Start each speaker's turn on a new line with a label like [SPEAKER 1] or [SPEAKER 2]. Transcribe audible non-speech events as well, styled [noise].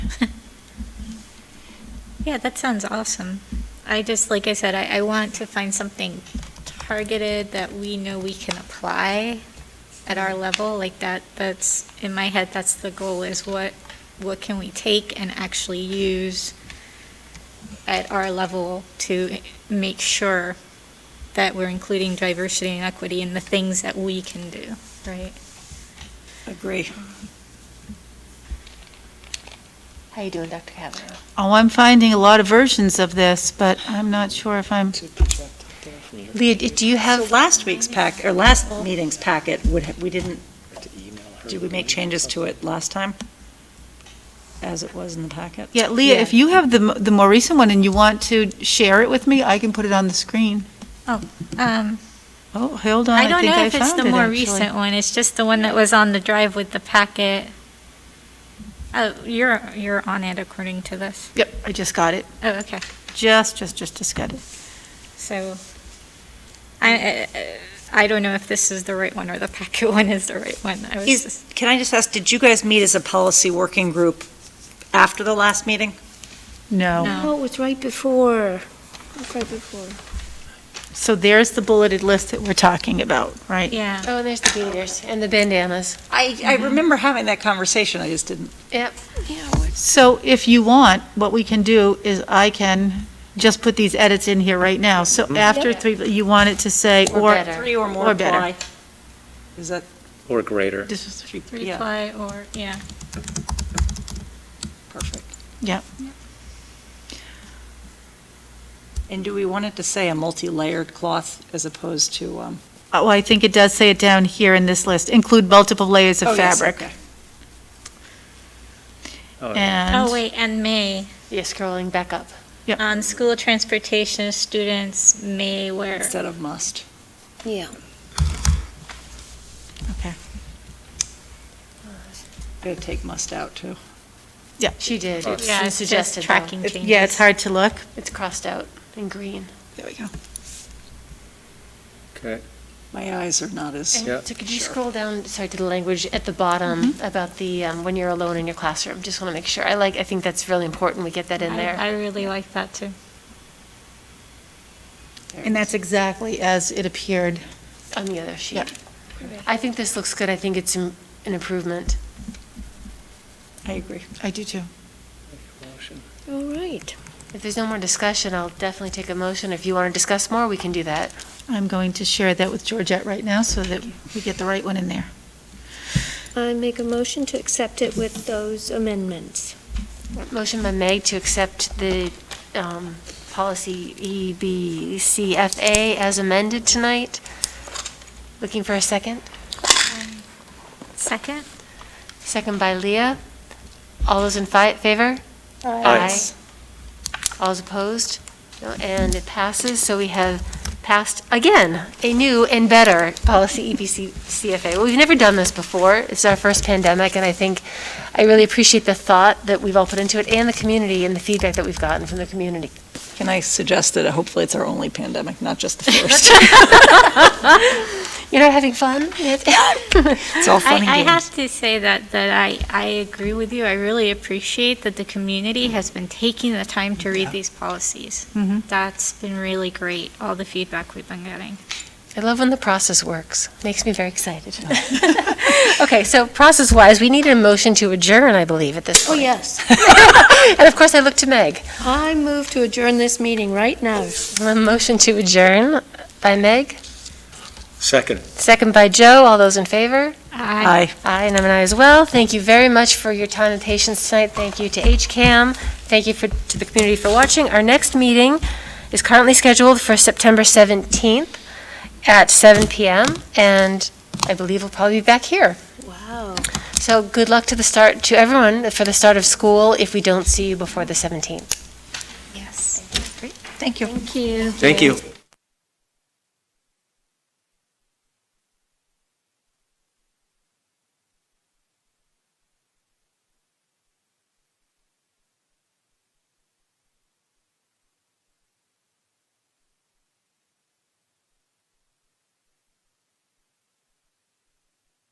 [SPEAKER 1] [laughs] Yeah, that sounds awesome. I just, like I said, I, I want to find something targeted that we know we can apply at our level, like that, that's, in my head, that's the goal, is what, what can we take and actually use at our level to make sure that we're including diversity and equity in the things that we can do, right?
[SPEAKER 2] Agree.
[SPEAKER 3] How you doing, Dr. Kavanaugh?
[SPEAKER 4] Oh, I'm finding a lot of versions of this, but I'm not sure if I'm,
[SPEAKER 3] Leah, d- do you
[SPEAKER 2] So
[SPEAKER 3] have,
[SPEAKER 2] last week's pack, or last meeting's packet, would, ha- we didn't, did we make changes to it last time? As it was in the packet?
[SPEAKER 4] yeah, Leah, if you have the, m- the more recent one and you want to share it with me, I can put it on the screen.
[SPEAKER 1] Um,
[SPEAKER 4] Oh, hold on,
[SPEAKER 1] I
[SPEAKER 4] I
[SPEAKER 1] don't
[SPEAKER 4] think
[SPEAKER 1] know
[SPEAKER 4] I
[SPEAKER 1] if it's
[SPEAKER 4] found
[SPEAKER 1] the
[SPEAKER 4] it,
[SPEAKER 1] more
[SPEAKER 4] actually.
[SPEAKER 1] recent one, it's just the one that was on the drive with the packet. Oh, you're, you're on it according to this.
[SPEAKER 4] Yep, I just got it,
[SPEAKER 1] Oh, okay,
[SPEAKER 4] just, just, just, just got it.
[SPEAKER 1] so, I, I- I don't know if this is the right one or the packet [laughs] one is the right one. I was
[SPEAKER 2] Is,
[SPEAKER 1] just-
[SPEAKER 2] can I just ask, did you guys meet as a policy working group after the last meeting?
[SPEAKER 4] No,
[SPEAKER 1] No.
[SPEAKER 5] Oh, it was right before, it was right before.
[SPEAKER 4] so there's the bulleted list that we're talking about, right?
[SPEAKER 1] Yeah,
[SPEAKER 3] oh, there's the beaters and the bandanas.
[SPEAKER 2] I, I remember having that conversation, I just didn't.
[SPEAKER 3] Yep.
[SPEAKER 4] So if you want, what we can do is I can just put these edits in here right now. So after
[SPEAKER 3] Yeah.
[SPEAKER 4] three, you want it to say,
[SPEAKER 3] Or
[SPEAKER 4] or,
[SPEAKER 3] better.
[SPEAKER 2] Three or more
[SPEAKER 4] Or better.
[SPEAKER 2] apply. Is that,
[SPEAKER 6] Or greater.
[SPEAKER 4] this is three,
[SPEAKER 2] yeah,
[SPEAKER 1] reply or, yeah.
[SPEAKER 2] perfect.
[SPEAKER 4] yeah.
[SPEAKER 2] And do we want it to say a multi-layered cloth as opposed to, um?
[SPEAKER 4] Oh, I think it does say it down here in this list, include multiple layers
[SPEAKER 2] oh,
[SPEAKER 4] of
[SPEAKER 2] yes,
[SPEAKER 4] fabric.
[SPEAKER 2] okay.
[SPEAKER 1] Oh,
[SPEAKER 6] Oh, yeah.
[SPEAKER 4] And,
[SPEAKER 1] wait, and May,
[SPEAKER 3] You're scrolling back up.
[SPEAKER 1] on school transportation, students may wear.
[SPEAKER 2] Instead of must.
[SPEAKER 3] Yeah.
[SPEAKER 4] okay,
[SPEAKER 2] Gotta take must out, too.
[SPEAKER 4] yeah.
[SPEAKER 3] She did. Oh, It's
[SPEAKER 1] Yeah, it's just
[SPEAKER 3] suggested, though.
[SPEAKER 1] tracking
[SPEAKER 4] It-
[SPEAKER 1] changes.
[SPEAKER 4] Yeah, it's hard to look.
[SPEAKER 3] It's crossed out in green.
[SPEAKER 2] There we go.
[SPEAKER 6] Okay,
[SPEAKER 2] My eyes are not as.
[SPEAKER 6] Yeah.
[SPEAKER 3] So could you
[SPEAKER 2] Sure.
[SPEAKER 3] scroll down, sorry, to the language at the bottom about the, um, when you're alone in your classroom? Just want to make sure. I like, I think that's really important. We get that in
[SPEAKER 1] I-
[SPEAKER 3] there.
[SPEAKER 1] I really like that too.
[SPEAKER 4] And that's exactly as it appeared.
[SPEAKER 3] on the other sheet.
[SPEAKER 4] Yep.
[SPEAKER 3] I think this looks good. I think it's an an improvement.
[SPEAKER 2] I agree.
[SPEAKER 4] I do too.
[SPEAKER 5] All right.
[SPEAKER 3] If there's no more discussion, I'll definitely take a motion. If you want to discuss more, we can do that.
[SPEAKER 4] I'm going to share that with Georgette right now so that we get the right one in there.
[SPEAKER 5] I make a motion to accept it with those amendments.
[SPEAKER 3] Motion by Meg to accept the um, policy E EBCFA as amended tonight. Looking for a second?
[SPEAKER 1] Second?
[SPEAKER 3] Second by Leah. All those in fi- favor? Aye. All those opposed? No, And it passes, so we have passed, again, a new and better policy E EBC CFA. Well, We've never done this before. It's our first pandemic, and I think I really appreciate the thought that we've all put into it, and the community, and the feedback that we've gotten from the community.
[SPEAKER 2] Can I suggest that hopefully it's our only pandemic, not just the first?
[SPEAKER 3] You're not having fun? [laughs]
[SPEAKER 2] It's all fun and
[SPEAKER 1] I, I
[SPEAKER 2] games.
[SPEAKER 1] have to say that, that I, I agree with you. I really appreciate that the community has been taking the time to read these policies.
[SPEAKER 2] Mm-hmm.
[SPEAKER 1] That's been really great, all the feedback we've been getting.
[SPEAKER 3] I love when the process works. Makes me very excited. [laughs] Okay, so process-wise, we need a motion to adjourn, I believe, at this
[SPEAKER 5] Oh,
[SPEAKER 3] point.
[SPEAKER 5] yes.
[SPEAKER 3] And of course, I look to Meg.
[SPEAKER 5] I move to adjourn this meeting right now.
[SPEAKER 3] A motion to adjourn by Meg,
[SPEAKER 6] Second.
[SPEAKER 3] second by Joe. All those in favor?
[SPEAKER 1] I
[SPEAKER 2] Aye.
[SPEAKER 3] Aye, and I'm an aye as well. Thank you very much for your time and patience tonight. Thank you to HCAM. Thank you for, to the community for watching. Our next meeting is currently scheduled for September 17th at 7 PM, and I believe we'll probably be back here.
[SPEAKER 5] Wow.
[SPEAKER 3] So good luck to the start, to everyone for the start of school if we don't see you before the 17th.
[SPEAKER 1] Yes.
[SPEAKER 2] Thank you.
[SPEAKER 6] Thank you.